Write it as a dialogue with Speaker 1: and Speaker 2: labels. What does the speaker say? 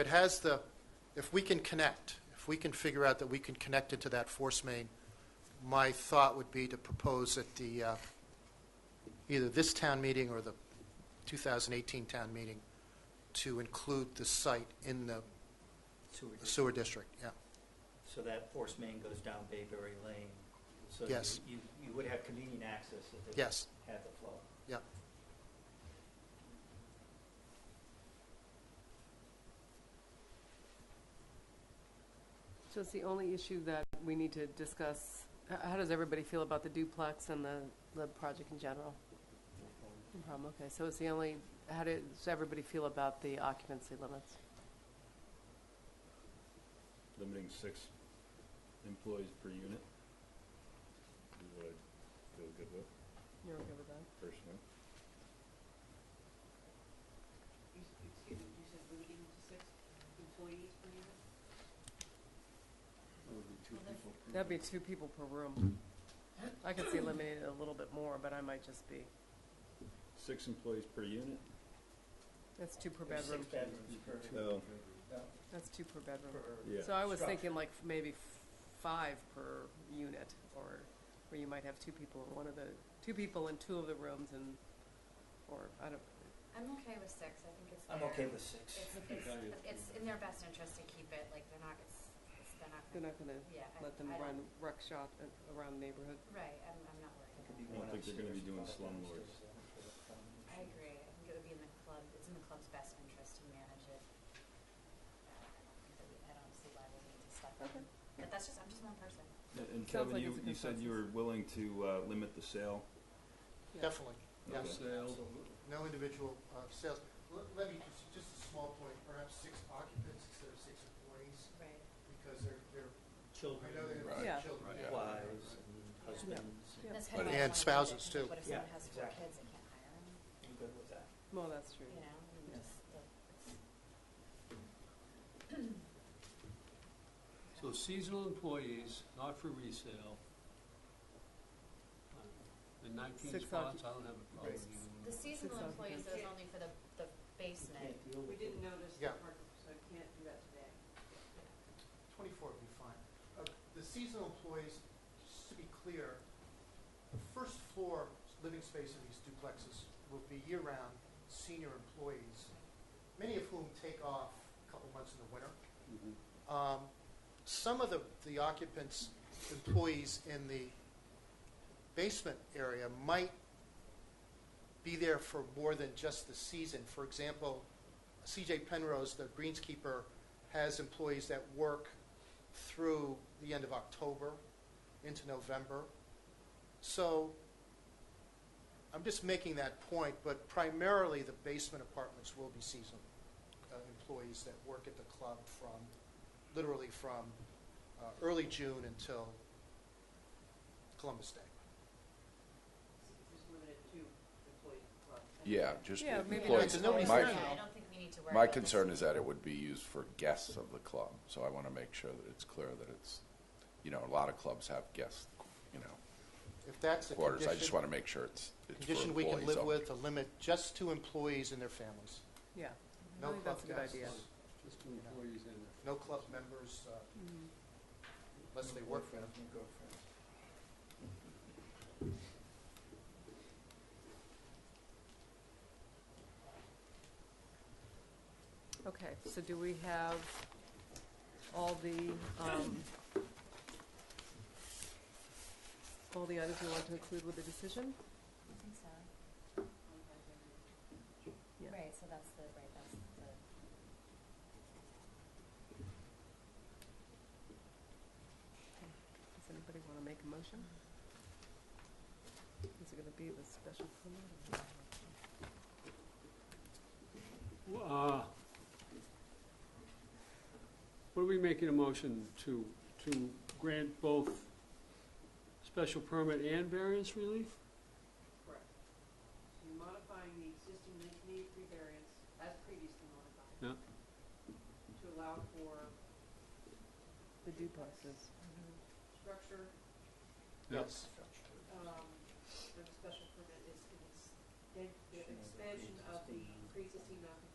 Speaker 1: It has the, if we can connect, if we can figure out that we can connect into that force main, my thought would be to propose at the, uh, either this town meeting or the 2018 town meeting, to include the site in the
Speaker 2: sewer district.
Speaker 1: sewer district, yeah.
Speaker 2: So that force main goes down Bayberry Lane. So you-
Speaker 1: Yes.
Speaker 2: you, you would have convenient access if they
Speaker 1: Yes,
Speaker 2: had the flow.
Speaker 1: yeah.
Speaker 3: So it's the only issue that we need to discuss, h- how does everybody feel about the duplex and the, the project in general? No problem, okay, so it's the only, how does everybody feel about the occupancy limits?
Speaker 4: limiting six employees per unit. Is what I feel good with
Speaker 3: You're okay with that?
Speaker 4: personally.
Speaker 5: You s- Excuse me, you said limiting to six employees per unit?
Speaker 3: That'd be two people per room. I could see eliminating a little bit more, but I might just be,
Speaker 4: Six employees per unit?
Speaker 3: that's two per
Speaker 2: There's
Speaker 3: bedroom,
Speaker 2: Six bedrooms per,
Speaker 4: No.
Speaker 3: that's two per bedroom.
Speaker 2: per-
Speaker 4: Yeah.
Speaker 3: So I was
Speaker 2: Structure.
Speaker 3: thinking like f- maybe f- five per unit, or where you might have two people in one of the, two people in two of the rooms and, or, I don't,
Speaker 6: I'm okay with six, I think it's
Speaker 2: I'm
Speaker 6: fair.
Speaker 2: okay with six.
Speaker 6: It's, it's, it's in their best interest to keep it, like, they're not, it's, it's- they're not,
Speaker 3: they're
Speaker 6: gonna-
Speaker 3: not gonna
Speaker 6: yeah, I, I
Speaker 3: let them
Speaker 6: don't-
Speaker 3: run ruck shot a- around the neighborhood.
Speaker 6: Right, I'm, I'm not worried
Speaker 2: It could
Speaker 6: about it.
Speaker 2: be
Speaker 4: I don't
Speaker 2: one
Speaker 4: think they're gonna be doing
Speaker 2: upstairs, one
Speaker 4: slumlords.
Speaker 2: downstairs, I don't feel like a combination.
Speaker 6: I agree, I think it would be in the club, it's in the club's best interest to manage it. Uh, I don't think that we, I don't see why we need to step in, but that's just, I'm just one person.
Speaker 4: A- And
Speaker 3: Sounds
Speaker 4: Kevin,
Speaker 3: like
Speaker 4: you,
Speaker 3: it's a
Speaker 4: you said you were
Speaker 3: consensus.
Speaker 4: willing to uh, limit the sale?
Speaker 3: Yeah.
Speaker 1: Definitely,
Speaker 4: Okay.
Speaker 1: yes. No individual uh, sales. Let- Let me, just- just a small point, perhaps six occupants instead of six employees,
Speaker 6: Right.
Speaker 1: because they're, they're, I
Speaker 2: Children,
Speaker 1: know
Speaker 3: Right.
Speaker 1: they're
Speaker 3: Yeah.
Speaker 1: children.
Speaker 7: Right.
Speaker 2: wives, and husbands.
Speaker 3: Yeah.
Speaker 6: That's kind of.
Speaker 1: And
Speaker 6: like one of the
Speaker 1: spouses,
Speaker 6: things,
Speaker 1: too.
Speaker 6: What if
Speaker 2: Yeah,
Speaker 6: someone has four
Speaker 2: exactly.
Speaker 6: kids, they can't hire them,
Speaker 2: I'm good with that.
Speaker 3: Well, that's true.
Speaker 6: you know, and
Speaker 3: Yeah.
Speaker 6: just, the- it's-
Speaker 7: So seasonal employees, not for resale. The nineteen
Speaker 3: Six
Speaker 7: spots,
Speaker 3: occup-
Speaker 7: I don't have a problem
Speaker 2: Right.
Speaker 6: The
Speaker 7: with
Speaker 6: seasonal
Speaker 3: Six
Speaker 6: employees,
Speaker 5: occupants.
Speaker 6: is only for the, the basement.
Speaker 2: Can't deal
Speaker 5: We
Speaker 2: with it.
Speaker 5: didn't notice
Speaker 1: Yeah.
Speaker 5: the parking, so I can't do that today.
Speaker 1: Twenty-four would be fine. Uh, The seasonal employees, just to be clear, the first floor living space of these duplexes will be year-round senior employees, many of whom take off a couple months in the winter. Um, Some of the the occupants, employees in the basement area might be there for more than just the season. For example, CJ Penrose, the greenskeeper, has employees that work through the end of October into November. So I'm just making that point, but primarily the basement apartments will be seasonal uh, employees that work at the club from, literally from uh, early June until Columbus Day.
Speaker 5: Just limited to employees per club.
Speaker 7: Yeah,
Speaker 8: just
Speaker 3: Yeah, maybe
Speaker 8: employees.
Speaker 1: that's nobody's
Speaker 8: My,
Speaker 1: saying
Speaker 6: Yeah, I don't think we need to worry
Speaker 8: my
Speaker 6: about this.
Speaker 8: concern is that it would be used for guests of the club, so I want to make sure that it's clear that it's, you know, a lot of clubs have guest, you know,
Speaker 1: If that's a
Speaker 8: quarters.
Speaker 1: condition.
Speaker 8: I just want to make sure it's, it's for
Speaker 1: Condition we can
Speaker 8: employees
Speaker 1: live
Speaker 8: only.
Speaker 1: with, to limit just to employees and their families.
Speaker 3: Yeah,
Speaker 1: No
Speaker 3: I
Speaker 1: club
Speaker 3: think that's a good
Speaker 1: guests,
Speaker 3: idea.
Speaker 9: Just two employees in there.
Speaker 1: no club members, uh,
Speaker 6: Mm-hmm.
Speaker 1: unless they work for them.
Speaker 2: Your girlfriend.
Speaker 3: Okay, so do we have all the, um, all the items you want to include with the decision?
Speaker 6: I think so.
Speaker 3: Yeah.
Speaker 6: Right, so that's the, right, that's the,
Speaker 3: Does anybody want to make a motion? Is it going to be the special permit?
Speaker 7: that. Uh, What are we making a motion to, to grant both special permit and variance relief?
Speaker 5: Correct. So you're modifying the existing nineteen eighty-three variance as previously modified.
Speaker 7: Yeah.
Speaker 5: To allow for
Speaker 3: The duplexes.
Speaker 6: mm-hmm.
Speaker 5: structure,
Speaker 7: Yeah.
Speaker 1: Yes.
Speaker 5: um, the special permit is an ex- an- the expansion of the pre-existing non